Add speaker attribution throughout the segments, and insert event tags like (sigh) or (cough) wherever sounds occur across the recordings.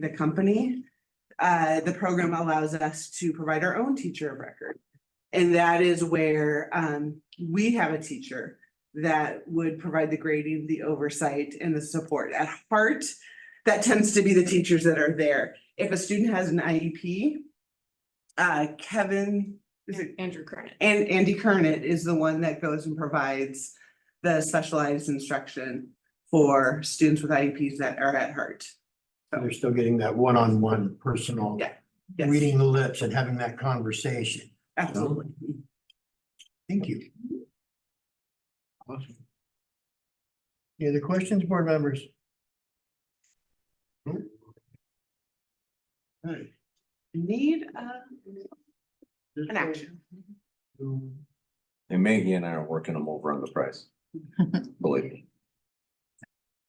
Speaker 1: the company. Uh, the program allows us to provide our own teacher of record. And that is where, um, we have a teacher that would provide the grading, the oversight and the support. At heart, that tends to be the teachers that are there. If a student has an IEP, uh, Kevin, is it
Speaker 2: Andrew Kernan.
Speaker 1: and Andy Kernet is the one that goes and provides the specialized instruction for students with IEPs that are at heart.
Speaker 3: And They're still getting that one-on-one personal.
Speaker 1: Yeah, yes.
Speaker 3: Reading the lips and having that conversation.
Speaker 1: Absolutely.
Speaker 3: Thank you. Awesome. Any other questions, board members? Nope. Alright.
Speaker 1: Need uh,
Speaker 3: This
Speaker 1: an action.
Speaker 3: will-
Speaker 4: And Maggie and I are working them over on the price. Believe me.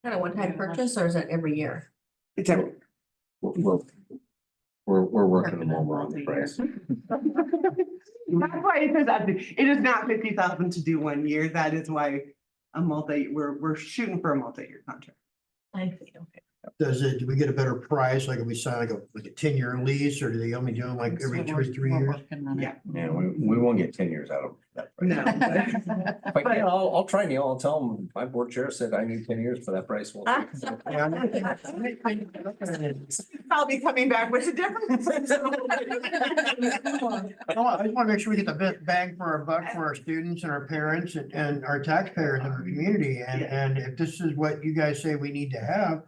Speaker 2: Kind of one-time purchase or is it every year?
Speaker 1: It's every,
Speaker 4: We're, we're- we're, we're working them over on the price.
Speaker 1: that's why it says, up to- it is not fifty thousand to do one year. That is why a multi, we're, we're shooting for a multi-year contract.
Speaker 2: I see, okay.
Speaker 3: Does it, do we get a better price? Like if we sign like a, like a ten-year lease or do they only do them like every two or three years?
Speaker 1: Yeah.
Speaker 4: Yeah, we, we won't get ten years out of that. price.
Speaker 1: No.
Speaker 4: But yeah, I'll, I'll try Neil. I'll tell him, my board chair said I need ten years for that price. We'll take it."
Speaker 3: Yeah, I'm not-
Speaker 1: (laughs) I'll be coming back with a difference. (laughs)
Speaker 3: No, I just want to make sure we get the best bang for our buck for our students and our parents and, and our taxpayers in our community. And, and if this is what you guys say we need to have,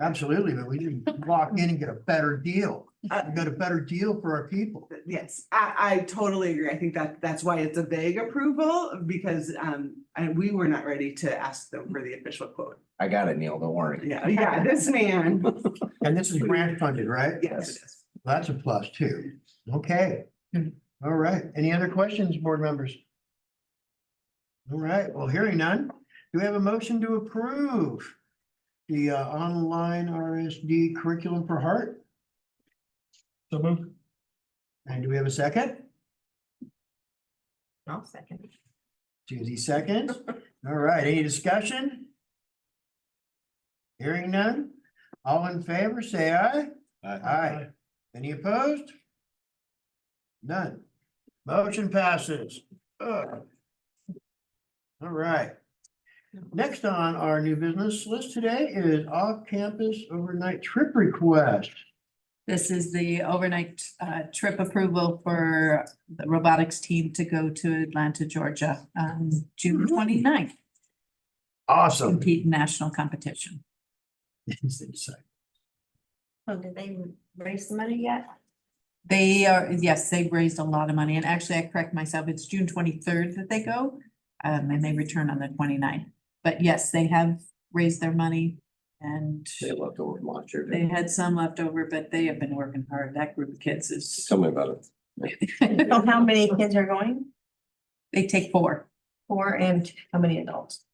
Speaker 3: absolutely, but we need to lock in and get a better deal. We got a better deal for our people.
Speaker 1: Yes, I, I totally agree. I think that, that's why it's a vague approval, because, um, and we were not ready to ask them for the official quote.
Speaker 4: I got it, Neil. Don't worry.
Speaker 1: Yeah, yeah, this man,
Speaker 3: And this is grant funded, right?
Speaker 1: (laughs) yes, it is.
Speaker 3: That's a plus too. Okay. All right. Any other questions, board members? All right. Well, hearing none, do we have a motion to approve the uh, online RSD curriculum for heart? So moved. And do we have a second?
Speaker 2: I'll second.
Speaker 3: Susie (laughs) seconds. All right. Any discussion? Hearing none. All in favor, say aye. Aye. Any opposed? None. Motion passes. Ugh. All right. Next on our new business list today is off-campus overnight trip request.
Speaker 5: This is the overnight uh, trip approval for the robotics team to go to Atlanta, Georgia, um, June
Speaker 3: Mm-hmm.
Speaker 5: 29th,
Speaker 3: Awesome.
Speaker 5: compete in national competition.
Speaker 2: Oh, did they raise the money (laughs) yet?
Speaker 5: They are, yes, they've raised a lot of money, and actually, I correct myself, it's June twenty-third that they go, um, and they return on the 29th. But yes, they have raised their money, and
Speaker 4: They left over from last year.
Speaker 5: they
Speaker 4: didn't
Speaker 5: had some left over, but they have been working hard. That group of kids
Speaker 4: they?
Speaker 5: is, (laughs)
Speaker 4: Tell me about it.
Speaker 2: So how many kids are going?
Speaker 5: they take four.
Speaker 2: Four and how many adults?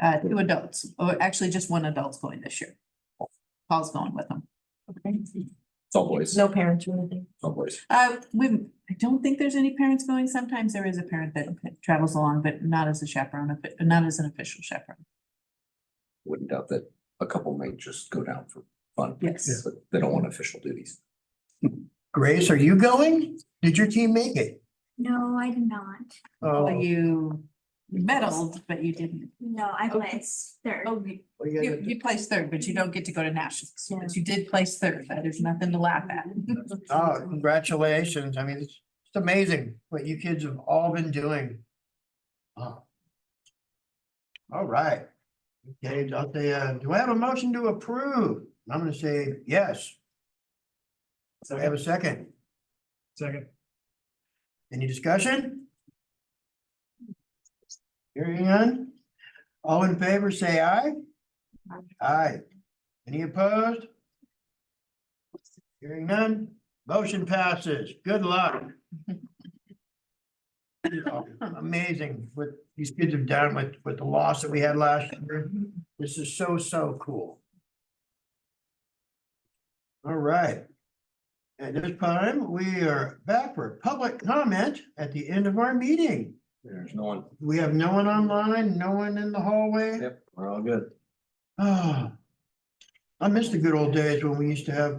Speaker 5: Uh, two adults, or actually just one adult's going this year. Paul's going with them.
Speaker 4: It's all boys,
Speaker 2: No parents or anything?
Speaker 4: all boys.
Speaker 5: Uh, we, I don't think there's any parents going. Sometimes there is a parent that travels along, but not as a chaperone, but not as an official chaperone.
Speaker 4: Wouldn't doubt that a couple may just go down for fun.
Speaker 5: Yes.
Speaker 4: But They don't want official duties.
Speaker 3: (laughs) Grace, are you going? Did your team make it?
Speaker 6: No, I did not.
Speaker 3: Oh,
Speaker 5: But you medaled, but you didn't.
Speaker 6: No, I
Speaker 5: Okay.
Speaker 6: placed third.
Speaker 5: Oh, you,
Speaker 3: what do you
Speaker 5: you
Speaker 3: guys-
Speaker 5: you placed third, but you don't get to go to nationals. But you did place third. That is nothing to laugh at.
Speaker 3: Oh, congratulations. I mean, it's it's amazing what you kids have all been doing. Wow. All right. Okay, I'll say, uh, do I have a motion to approve? I'm gonna say yes. Do I have a second?
Speaker 7: Second.
Speaker 3: Any discussion? Hearing none? All in favor, say aye. Aye. Any opposed? Hearing none, motion passes. Good luck. Amazing what these kids have done with, with the loss that we had last year. This is so, so cool. All right. At this time, we are back for public comment at the end of our meeting.
Speaker 4: There's no one.
Speaker 3: We have no one online, no one in the hallway.
Speaker 4: Yep, we're all good.
Speaker 3: Ah, I miss the good old days when we used to have